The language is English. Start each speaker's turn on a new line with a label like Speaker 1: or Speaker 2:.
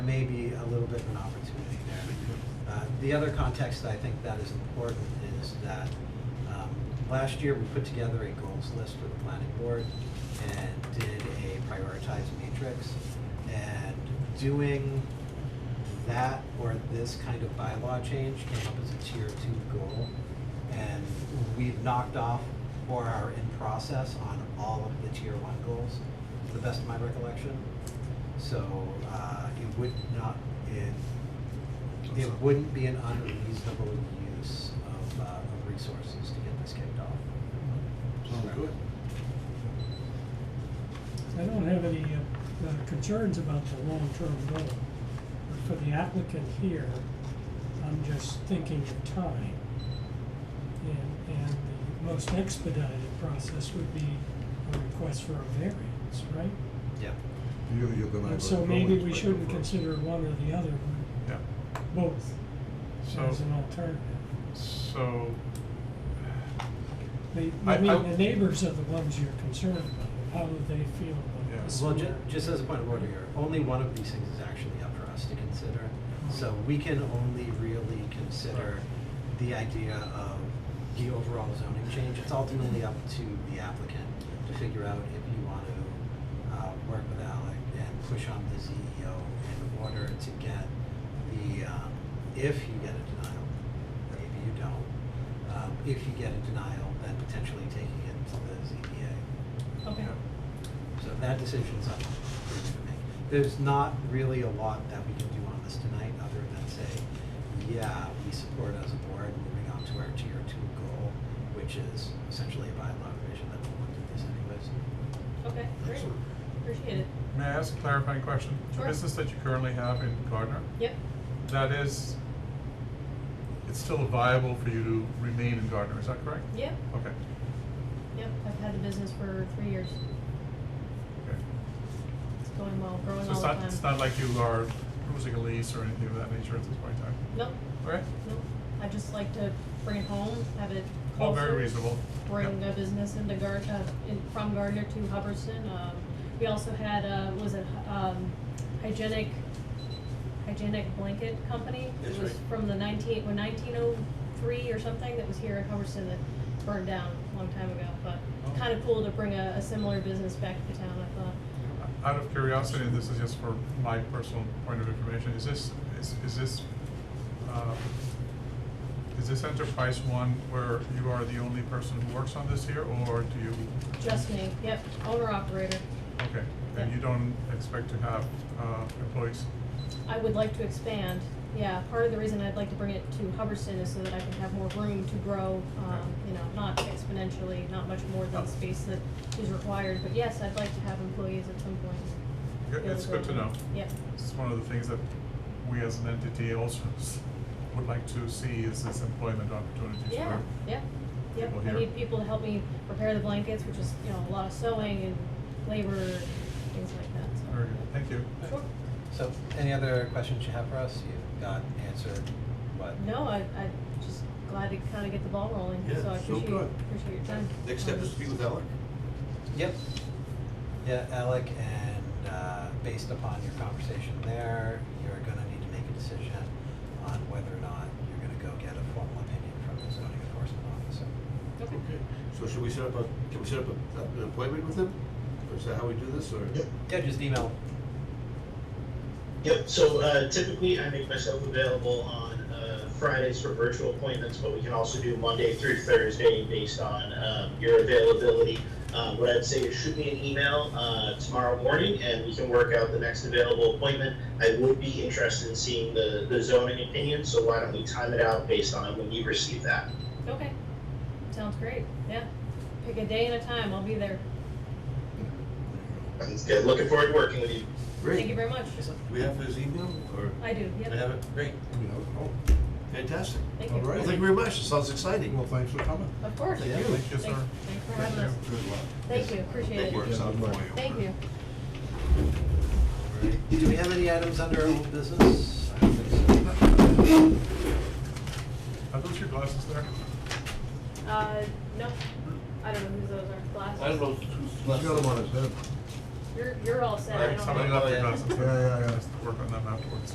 Speaker 1: may be a little bit of an opportunity there. Uh, The other context I think that is important is that um, last year, we put together a goals list for the planning board and did a prioritized matrix. And doing that or this kind of bylaw change came up as a tier two goal. And we've knocked off or are in process on all of the tier one goals, to the best of my recollection. So, uh, it would not, it, it wouldn't be an unreasonable use of, uh, of resources to get this kicked off.
Speaker 2: Sounds good.
Speaker 3: I don't have any uh, uh, concerns about the long-term goal, but for the applicant here, I'm just thinking of time. And, and the most expedited process would be a request for a variance, right?
Speaker 1: Yep.
Speaker 2: You, you're gonna have a.
Speaker 3: And so
Speaker 2: building
Speaker 3: maybe we
Speaker 2: inspector
Speaker 3: shouldn't
Speaker 2: first.
Speaker 3: consider one or the other,
Speaker 4: Yeah,
Speaker 3: but both
Speaker 4: So-
Speaker 3: as an alternative.
Speaker 4: so,
Speaker 3: They,
Speaker 4: I-
Speaker 3: I
Speaker 4: I-
Speaker 3: mean, the neighbors are the ones you're concerned about, how do they feel
Speaker 4: Yeah.
Speaker 3: about this?
Speaker 1: Well, ju-
Speaker 3: work?
Speaker 1: just as a point of order here, only one of these things is actually up for us to consider. So we can only really consider the idea of the overall zoning change. It's ultimately up to the applicant to figure out if you want to, uh, work with Alec and push on the CEO in order to get the, um, if you get a denial, maybe you don't. Um, if you get a denial, then potentially taking it to the ZBA.
Speaker 4: yeah,
Speaker 5: Okay.
Speaker 1: So that decision's up for you to make. There's not really a lot that we can do on this tonight, other than say, yeah, we support as a board moving on to our tier two goal, which is essentially a bylaw revision that will look at this anyways.
Speaker 5: Okay, great,
Speaker 2: Excellent.
Speaker 5: appreciate it.
Speaker 4: may I ask a clarifying question?
Speaker 5: Sure.
Speaker 4: The business that you currently have in Gardner,
Speaker 5: Yep,
Speaker 4: that is, it's still viable for you to remain in Gardner, is that correct?
Speaker 5: yep,
Speaker 4: Okay,
Speaker 5: yep, I've had the business for three years,
Speaker 4: okay.
Speaker 5: it's going well, growing all
Speaker 4: So
Speaker 5: the
Speaker 4: it's not,
Speaker 5: time.
Speaker 4: it's not like you are losing a lease or anything of that nature at this point in time?
Speaker 5: Nope,
Speaker 4: Okay,
Speaker 5: nope, I just like to bring it home, have it closer.
Speaker 4: all very reasonable.
Speaker 5: bring
Speaker 4: Yeah.
Speaker 5: a business into Gar- uh, in, from Gardner to Hubbardston. Um, we also had, uh, was it, um, hygienic, hygienic blanket company?
Speaker 2: That's
Speaker 5: It was
Speaker 2: right.
Speaker 5: from the nineteen, when nineteen oh three or something, that was here in Hubbardston that burned down a long time ago. But
Speaker 2: Oh.
Speaker 5: kind of cool to bring a, a similar business back to town, I thought.
Speaker 4: Out of curiosity, and this is just for my personal point of information, is this, is, is this, uh, is this enterprise one where you are the only person who works on this here, or do you,
Speaker 5: Just me, yep, owner operator.
Speaker 4: okay, and
Speaker 5: Yeah.
Speaker 4: you don't expect to have, uh, employees?
Speaker 5: I would like to expand, yeah, part of the reason I'd like to bring it to Hubbardston is so that I can have more room to grow, um,
Speaker 4: Okay.
Speaker 5: you know, not exponentially, not much more than
Speaker 4: Oh.
Speaker 5: the space that is required, but yes, I'd like to have employees at some point.
Speaker 4: Good-
Speaker 5: be able
Speaker 4: It's good to know.
Speaker 5: Yeah,
Speaker 4: It's one of the things that we as an entity also s- would like to see is this employment opportunities
Speaker 5: yeah,
Speaker 4: for.
Speaker 5: yeah, yeah,
Speaker 4: people
Speaker 5: I
Speaker 4: here.
Speaker 5: need people to help me prepare the blankets, which is, you know, a lot of sewing and labor, and things like that, so.
Speaker 4: Very good, thank you.
Speaker 5: Sure,
Speaker 1: So any other questions you have for us? You've got answered what?
Speaker 5: no, I, I just glad to kinda get the ball rolling,
Speaker 2: Yeah,
Speaker 5: so I
Speaker 2: so
Speaker 5: appreciate,
Speaker 2: good.
Speaker 5: appreciate your time.
Speaker 6: Next step is to
Speaker 5: Um,
Speaker 6: speak with Alec.
Speaker 1: Yep. Yeah, Alec, and uh, based upon your conversation there, you're gonna need to make a decision on whether or not you're gonna go get a formal opinion from the zoning enforcement officer.
Speaker 5: Okay.
Speaker 6: Okay, so should we set up a, can we set up a- a- an appointment with him? Or is that how we do this, or?
Speaker 7: Yep.
Speaker 1: Yeah, just email.
Speaker 7: Yep, so uh, typically I make myself available on uh, Fridays for virtual appointments, but we can also do Monday through Thursday based on um, your availability. Uh, What I'd say is shoot me an email uh, tomorrow morning and we can work out the next available appointment. I would be interested in seeing the the zoning opinion, so why don't we time it out based on when you receive that?
Speaker 5: Okay, sounds great, yeah. Pick a day and a time, I'll be there.
Speaker 7: Sounds good. Looking forward to working with you.
Speaker 5: Thank you
Speaker 6: Great,
Speaker 5: very much.
Speaker 6: do we have his email, or?
Speaker 5: I do,
Speaker 6: I
Speaker 5: yep,
Speaker 6: have it, great,
Speaker 2: You know,
Speaker 6: fantastic.
Speaker 5: thank
Speaker 2: all
Speaker 5: you.
Speaker 2: right.
Speaker 6: Well, thank you very much, it sounds
Speaker 2: oh,
Speaker 6: exciting.
Speaker 2: well, thanks for coming.
Speaker 5: Of course.
Speaker 6: Thank you.
Speaker 4: Thank you,
Speaker 5: Thanks,
Speaker 4: sir.
Speaker 5: thanks for
Speaker 4: Thank
Speaker 5: having us.
Speaker 4: you.
Speaker 6: Good luck.
Speaker 5: Thank you, appreciate
Speaker 6: That
Speaker 5: it.
Speaker 6: works out for you.
Speaker 5: Thank you.
Speaker 1: Do we have any items under old business? I don't think so.
Speaker 4: Are those your glasses there?
Speaker 5: Uh, no, I don't know whose those are, glasses.
Speaker 6: know.
Speaker 2: He's got him on his head.
Speaker 8: you're, you're all set. I
Speaker 4: Right,
Speaker 8: don't
Speaker 4: Somebody
Speaker 8: think-
Speaker 4: left their glasses.
Speaker 5: Oh, Yeah, yeah, yeah.
Speaker 4: Let's Work on them afterwards.